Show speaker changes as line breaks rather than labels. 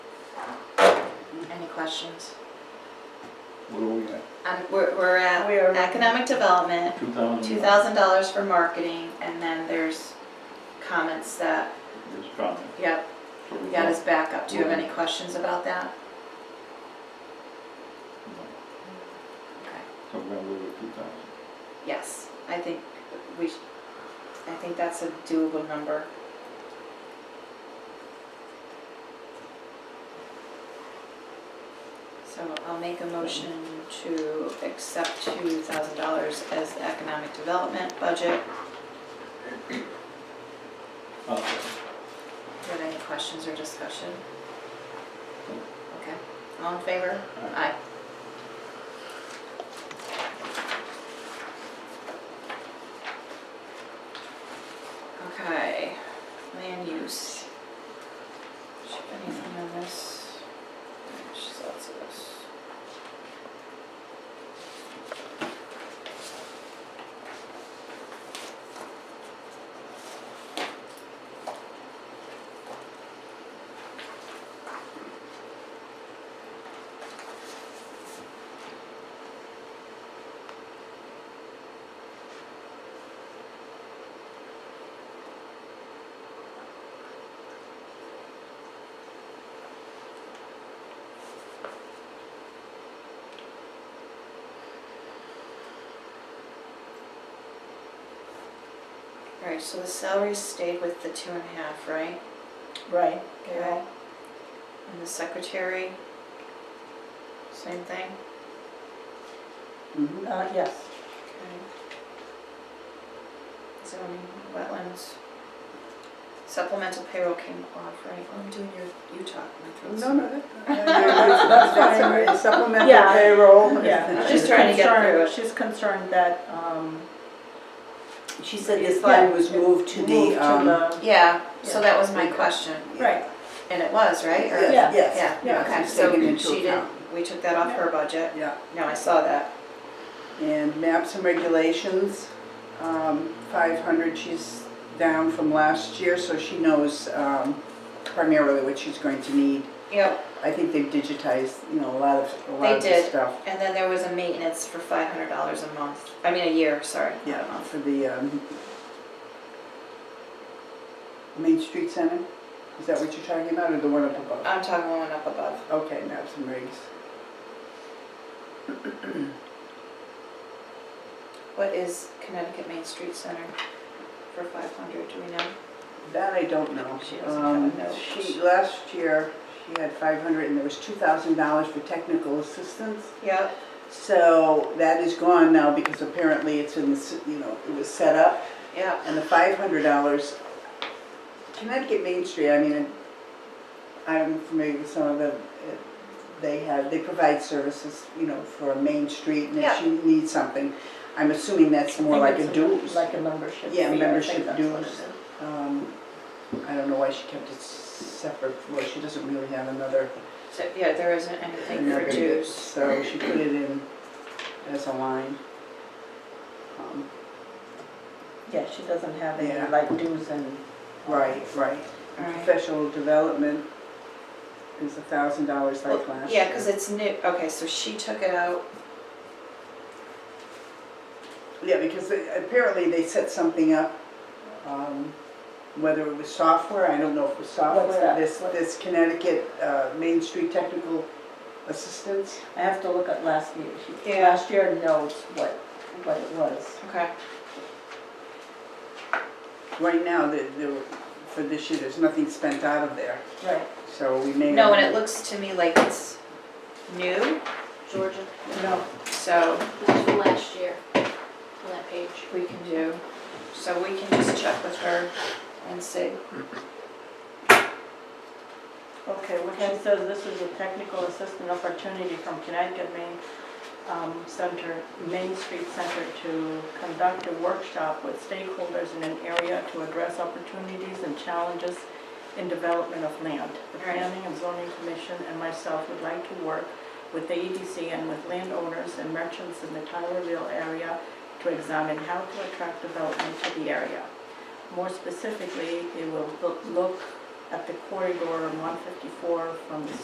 Any questions?
What are we at?
Um, we're, we're at
We are- Mm-hmm.
economic development,
Two thousand?
two thousand dollars for marketing, and then there's comments that,
There's comment.
yep,
So
we
we're
got
not-
his backup. Do you have
Mhm.
any questions about that? Okay.
So we're gonna leave it two thousand.
Yes, I think we, sh- I think that's a doable number. So I'll make a motion to accept two thousand dollars as the economic development budget.
Uh,
Do you have any questions or discussion? Okay, all in favor? Aye. Okay, land use. Should anything on this? There's lots of this. All right, so the salaries stayed with the two and a half, right?
Right.
Okay. And the secretary, same thing?
Uh, yes.
Zoning, wetlands. Supplemental payroll came off, right? Well, I'm doing your, you talk, my throat's.
No, no, that- uh, that's fine, supplemental
Yeah.
payroll.
Yeah.
Just
she's
trying to get
concerned-
through it.
She's concerned that, um.
She said this line was moved to the,
moved
um.
the-
Yeah, so that was my
Yeah.
question,
Right,
and it was, right? Or-
Yeah.
Yes, yes.
Yeah, okay,
she's
so
taking into
she did,
account.
we took that off her budget.
Yeah,
No, I saw that.
and maps and regulations, um, five hundred, she's down from last year, so she knows, um, primarily what she's going to need.
Yep,
I think they've digitized, you know, a lot of, a
They
lot of the
did.
stuff.
and then there was a maintenance for five hundred dollars a month, I mean, a year, sorry. not a
Yeah,
month.
for the, um, Main Street Center, is that what you're talking about, or the one up above?
I'm talking one up above.
Okay, maps and rigs.
What is Connecticut Main Street Center for five hundred, do we know?
That I don't know.
She doesn't have a
Um,
note.
She, last year, she had five hundred and there was two thousand dollars for technical assistance.
Yep,
So that is gone now because apparently it's in the, s- you know, it was set up.
yep.
And the five hundred dollars, Connecticut Main Street, I mean, I'm familiar with some of them. uh, They have, they provide services, you know, for a main street and
Yeah.
if you need something, I'm assuming that's more like a dues.
like a membership.
Yeah,
fee, I
membership
think that's what it
dues.
is.
Um, I don't know why she kept it s- separate, well, she doesn't really have another,
So, yeah, there isn't anything for
another,
dues.
so she put it in as a line. Um,
Yeah, she doesn't have
Yeah.
any like dues and.
Right, right.
All right.
Professional development is a thousand dollars like
Well,
last year.
Yeah, because it's new, okay, so she took it out,
Yeah, because they- apparently they set something up, um, whether it was software, I don't know if it was software,
that?
this,
What-
this Connecticut, uh, Main Street Technical Assistance.
I have to look at last year. She-
Yeah.
Last year knows what, what it was.
okay,
Right now, the, the, for this year, there's nothing spent out of there,
Right.
so we may.
no, and it looks to me like it's new,
Georgia,
No,
so
this is from last year, on that page.
we can do, so we can just check with her and see.
Okay, well, she says this is a technical assistant opportunity from Connecticut Main um, Center, Main Street Center to conduct a workshop with stakeholders in an area to address opportunities and challenges in development of land. The
Right.
Planning and Zoning Commission and myself would like to work with the EDC and with landowners and merchants in the Tylerville area to examine how to attract development to the area. More specifically, they will loo- look at the corridor 154 from the